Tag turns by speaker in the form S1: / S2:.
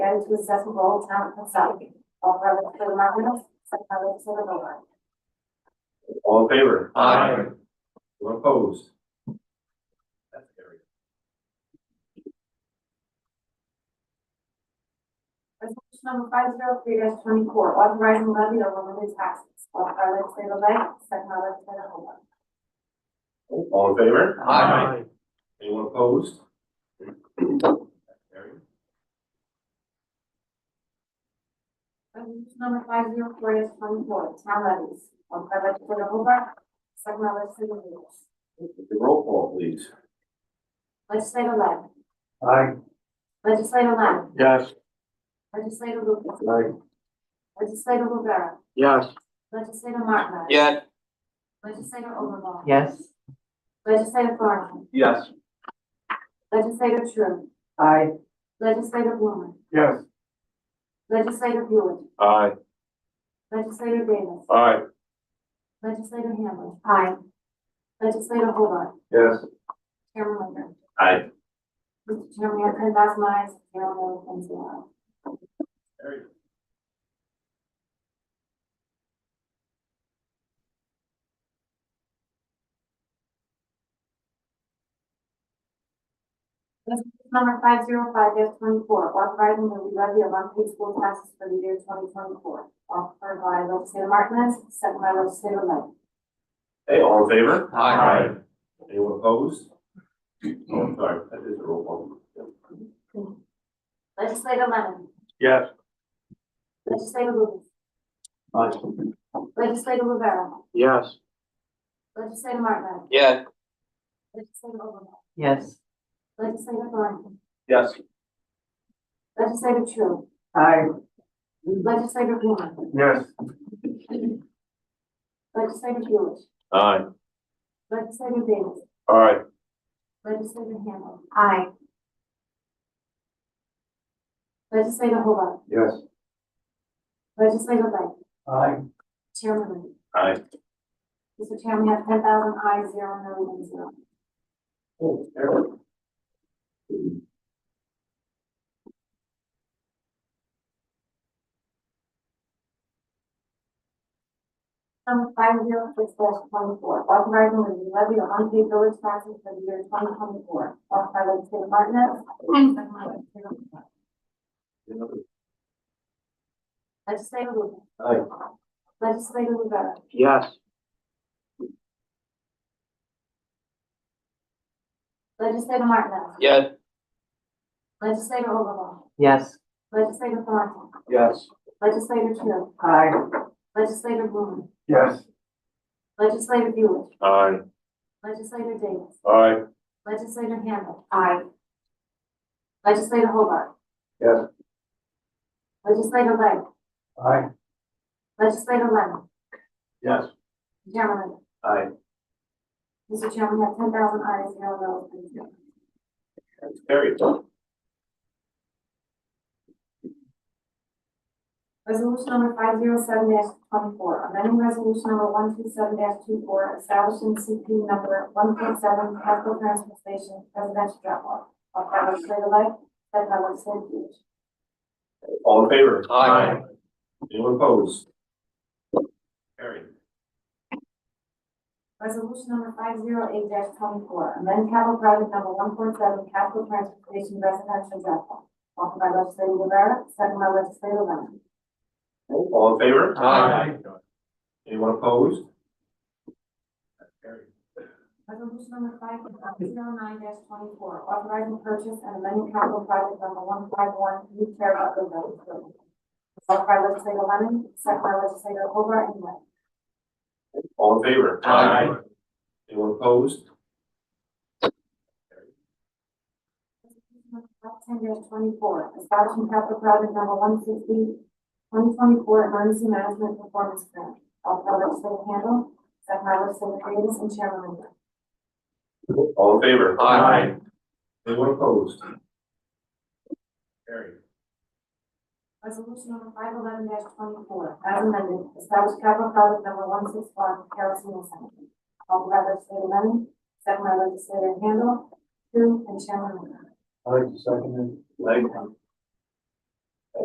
S1: and to assess the role of town itself, all relevant to the market, such relevant to the board.
S2: All in favor?
S3: Aye.
S2: Anyone opposed? That's carried.
S1: Resolution number five zero three dash twenty-four, authorizing levy of limited taxes, all relevant to the lake, such relevant to the board.
S2: All in favor?
S3: Aye.
S2: Anyone opposed? That's carried.
S1: Resolution number five zero four dash twenty-four, town levies, all relevant to the board, such relevant to the board.
S2: The roll call, please.
S1: Legislative Lang,
S3: Aye.
S1: legislative Lang,
S3: Yes.
S1: legislative Lucas,
S3: Aye.
S1: legislative Rivera,
S3: Yes.
S1: legislative Martinez.
S3: Yes.
S1: Legislator Overbaugh.
S4: yes,
S1: Legislator Thornhill.
S3: Yes.
S1: Legislator Tru.
S4: aye,
S1: Legislator Blumer.
S3: Yes.
S1: Legislator Buick.
S2: Aye.
S1: Legislator Davis.
S2: Aye.
S1: Legislator Hamlin. Aye. Legislator Hobart.
S3: Yes.
S1: Chairman Linder.
S2: Aye.
S1: Mr. Chairman, I can adopt my zero vote and zero.
S2: Carried.
S1: Resolution number five zero five twenty-four, authorizing the levy of unpaid school taxes for the year twenty twenty-four. Offered by legislator Martinez, second by legislator Lang.
S2: Hey, all in favor?
S3: Aye.
S2: Anyone opposed? Oh, I'm sorry, that is a roll call.
S1: Legislator Lennon.
S3: Yes.
S1: Legislator Lewis.
S3: Aye.
S1: Legislator Rivera.
S3: Yes.
S1: Legislator Martinez.
S3: Yes.
S1: Legislator Overbaugh.
S4: yes,
S1: Legislator Thornhill.
S3: Yes.
S1: Legislator Tru.
S4: aye,
S1: Legislator Blumer.
S3: Yes.
S1: Legislator Buick.
S2: Aye.
S1: Legislator Davis.
S2: Aye.
S1: Legislator Hamlin. Aye. Legislator Hobart.
S3: Yes.
S1: Legislator Lang.
S3: Aye.
S1: Chairman Linder.
S2: Aye.
S1: Mr. Chairman, we have ten thousand ayes, zero no, and zero.
S2: Oh, carried.
S1: Number five zero six dash twenty-four, authorizing the levy of unpaid village taxes for the year twenty twenty-four. Offered by legislator Martinez. second by legislator Hobart. Legislator Lewis.
S2: Aye.
S1: Legislator Rivera.
S3: Yes.
S1: Legislator Martinez.
S3: Yes.
S1: Legislator Overbaugh.
S4: yes,
S1: Legislator Thornhill.
S3: Yes.
S1: Legislator Tru.
S4: aye,
S1: Legislator Blumer.
S3: Yes.
S1: Legislator Buick.
S2: Aye.
S1: Legislator Davis.
S2: Aye.
S1: Legislator Handel. Aye. Legislator Hobart.
S3: Yes.
S1: Legislator Lang.
S3: Aye.
S1: Legislator Lemon.
S3: Yes.
S1: Chairman.
S2: Aye.
S1: Mr. Chairman, we have ten thousand ayes, zero no's, and zero.
S2: That's carried.
S1: Resolution number five zero seven twenty-four, amending resolution number one two seven 24 establishing CP number one point seven, capital transfer station, residential drop off. Of by legislator Lang, second by legislator Lewis.
S2: All in favor?
S3: Aye.
S2: Anyone opposed? Carried.
S1: Resolution number five zero eight twenty-four, amend capital project number one point seven, capital transfer station, residential drop off. Offered by legislator Rivera, second by legislator Lemon.
S2: All in favor?
S3: Aye.
S2: Anyone opposed? That's carried.
S1: Resolution number five zero nine dash twenty-four, authorizing purchase and amending capital project number one five one, new care of the village building. Offered by legislator Lemon, second by legislator Hoover and Wright.
S2: All in favor?
S3: Aye.
S2: Anyone opposed?
S1: Five ten dash twenty-four, establishing capital project number one sixty, twenty twenty-four emergency management performance grant. Offered by legislator Handle, second by legislator Davis and Chairman Linder.
S2: All in favor?
S3: Aye.
S2: Anyone opposed? Carried.
S1: Resolution number five eleven twenty-four, as amended, establish capital project number one six one, Carroll Senior Center. Offered by legislator Lemon, second by legislator Handle, two, and Chairman Linder.
S3: I'd like to second
S2: Leg.